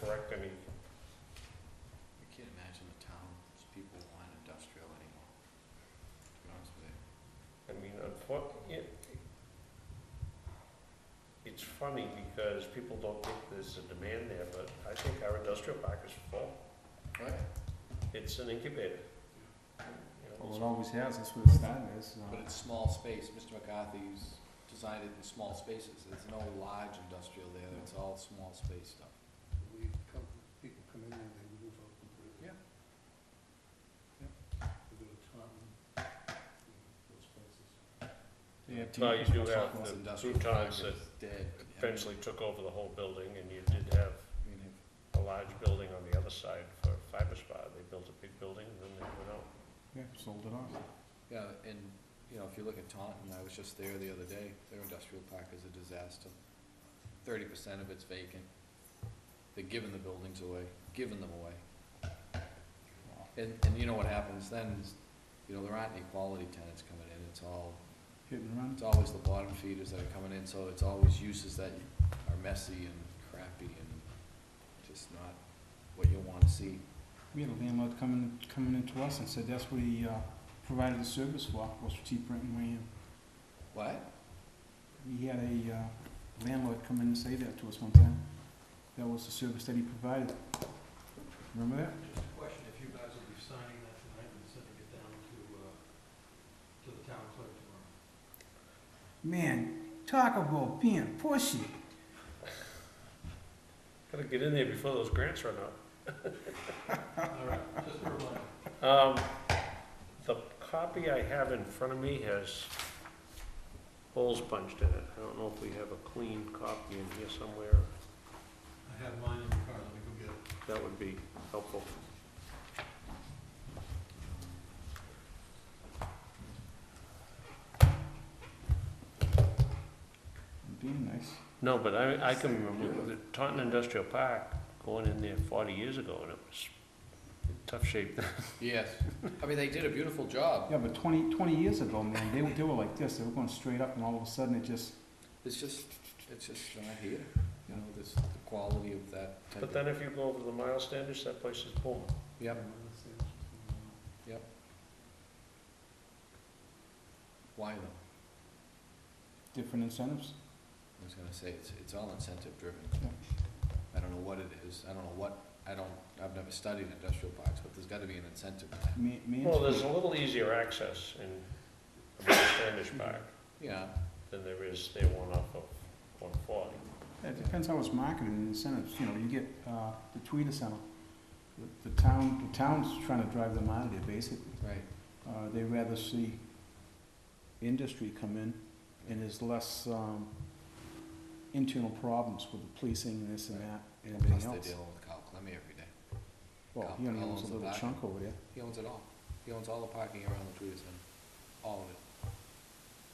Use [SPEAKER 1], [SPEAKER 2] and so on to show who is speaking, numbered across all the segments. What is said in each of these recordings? [SPEAKER 1] correct any,
[SPEAKER 2] I can't imagine the town's people want industrial anymore, to be honest with you.
[SPEAKER 1] I mean, unfortunately, it, it's funny because people don't think there's a demand there, but I think our industrial park is full.
[SPEAKER 2] Right.
[SPEAKER 1] It's an incubator. You know,
[SPEAKER 3] Well, it always has, that's where the starting is, so.
[SPEAKER 2] But it's small space, Mr. McCarthy's designed it in small spaces, there's no large industrial there, it's all small space stuff.
[SPEAKER 4] We come, people come in and they move out completely.
[SPEAKER 2] Yeah.
[SPEAKER 4] They go to Taunton, you know, those places.
[SPEAKER 3] They have
[SPEAKER 1] No, you
[SPEAKER 3] teachers
[SPEAKER 1] do
[SPEAKER 3] and
[SPEAKER 1] have
[SPEAKER 3] stuff.
[SPEAKER 1] the
[SPEAKER 2] Industrial
[SPEAKER 1] croutons that
[SPEAKER 2] park is dead.
[SPEAKER 1] eventually took over the whole building, and you did have
[SPEAKER 2] I mean, if-
[SPEAKER 1] a large building on the other side for fiber spa. They built a big building, and then they went out.
[SPEAKER 3] Yeah, sold it off.
[SPEAKER 2] Yeah, and, you know, if you look at Taunton, I was just there the other day, their industrial park is a disaster. Thirty percent of it's vacant, they're giving the buildings away, giving them away. And, and you know what happens then, is, you know, there aren't any quality tenants coming in, it's all,
[SPEAKER 3] Hit and run.
[SPEAKER 2] it's always the bottom feeders that are coming in, so it's always uses that are messy and crappy and just not what you wanna see.
[SPEAKER 3] We had a landlord coming, coming into us and said that's what he, uh, provided the service for, was for cheap rent and land.
[SPEAKER 2] What?
[SPEAKER 3] We had a, uh, landlord come in and say that to us one time. That was the service that he provided. Remember that?
[SPEAKER 4] Just a question, if you guys will be signing that tonight and sending it down to, uh, to the town clerk tomorrow.
[SPEAKER 3] Man, talk about being pushy.
[SPEAKER 1] Gotta get in there before those grants run out.
[SPEAKER 4] All right, just for a
[SPEAKER 1] Um,
[SPEAKER 4] reminder.
[SPEAKER 1] the copy I have in front of me has holes punched in it. I don't know if we have a clean copy in here somewhere.
[SPEAKER 4] I have mine in the car, let me go get it.
[SPEAKER 1] That would be helpful.
[SPEAKER 3] Being nice.
[SPEAKER 1] No, but I, I can remember the Taunton Industrial Park, going in there forty years ago, and it was in tough shape.
[SPEAKER 2] Yes, I mean, they did a beautiful job,
[SPEAKER 3] Yeah, but 20, 20 years ago, man, they, were- they were like this, they were going straight up and all of a sudden it just,
[SPEAKER 2] it's just, it's just not here, you know, this, the quality of that type of.
[SPEAKER 1] But then if you go over the mile standards, that place is booming.
[SPEAKER 2] Yep, why though?
[SPEAKER 3] different incentives.
[SPEAKER 2] I was gonna say, it's, it's all incentive driven.
[SPEAKER 3] Yeah.
[SPEAKER 2] I don't know what it is, I don't know what, I don't, I've never studied industrial parks, but there's gotta be an incentive. to that.
[SPEAKER 3] Ma- man-
[SPEAKER 1] Well, there's a little easier access in a mile standards park
[SPEAKER 2] Yeah,
[SPEAKER 1] than there is there one off of one forty.
[SPEAKER 3] Yeah, It depends how it's marketed and incentives, you know, you get, uh, the tweeter center. The- The town, the town's trying to drive them out of there, basically.
[SPEAKER 2] right,
[SPEAKER 3] Uh, they rather see industry come in and there's less, um, internal problems with the policing and this and that and
[SPEAKER 2] plus
[SPEAKER 3] everything
[SPEAKER 2] they're
[SPEAKER 3] else.
[SPEAKER 2] dealing with Kyle Clemmie every day.
[SPEAKER 3] Well, he only
[SPEAKER 2] Kyle owns
[SPEAKER 3] owns a
[SPEAKER 2] the
[SPEAKER 3] little
[SPEAKER 2] back.
[SPEAKER 3] chunk over there.
[SPEAKER 2] He owns it all, he owns all the parking around the Tweeters Center, all of it,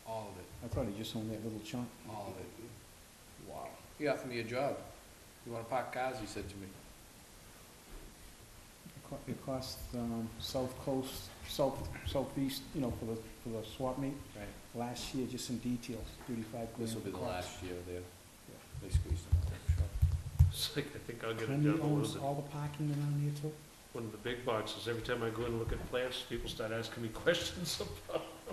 [SPEAKER 2] all of it,
[SPEAKER 3] I thought he just owned that little chunk.
[SPEAKER 2] all of it. Wow. He offered me a job, you wanna park cars, he said to me,
[SPEAKER 3] It co- It costs, um, South Coast, South, Southeast, you know, for the, for the swap meet,
[SPEAKER 2] right,
[SPEAKER 3] last year, just in details, thirty-five grand.
[SPEAKER 2] this will be the
[SPEAKER 3] cost.
[SPEAKER 2] last year there, they squeezed him out, I'm sure.
[SPEAKER 1] It's like, I think I'll get it
[SPEAKER 3] Clemmie
[SPEAKER 1] down a little
[SPEAKER 3] owns
[SPEAKER 1] bit.
[SPEAKER 3] all the parking around there too?
[SPEAKER 1] one of the big boxes, every time I go and look at plants, people start asking me questions about.
[SPEAKER 4] So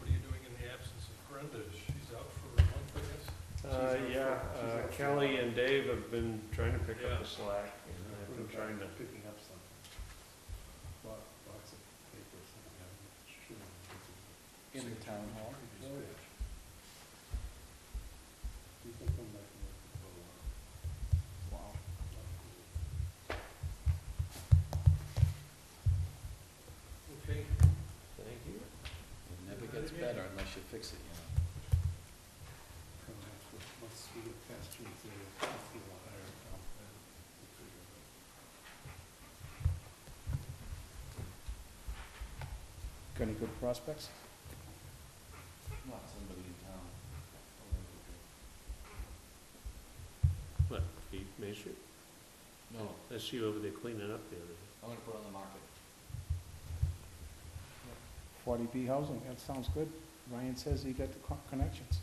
[SPEAKER 4] what are you doing in the absence of Brenda? She's out for a month, I guess?
[SPEAKER 1] Uh,
[SPEAKER 4] She's
[SPEAKER 1] yeah,
[SPEAKER 4] out
[SPEAKER 1] uh,
[SPEAKER 4] for- she's out for-
[SPEAKER 1] Kelly and Dave have been trying to pick up
[SPEAKER 4] Yeah.
[SPEAKER 1] the slack, and I've been trying to,
[SPEAKER 4] Picking up something. Box, box of paper or something, I'm sure.
[SPEAKER 2] In the town hall?
[SPEAKER 4] You can come back and look at the photo.
[SPEAKER 2] Wow.
[SPEAKER 4] Okay,
[SPEAKER 1] thank you.
[SPEAKER 2] It never gets better unless you fix it, you know.
[SPEAKER 4] come back with, once we get past June thirtieth, I'll feel a higher count then. We'll figure it out.
[SPEAKER 3] Got any good prospects?
[SPEAKER 2] Not somebody in town.
[SPEAKER 1] What, the Main Street?
[SPEAKER 2] No,
[SPEAKER 1] Oh, I see you over there cleaning up the other
[SPEAKER 2] I'm gonna put it on the market.
[SPEAKER 3] Forty B housing, that sounds good. Ryan says he got the co- connections.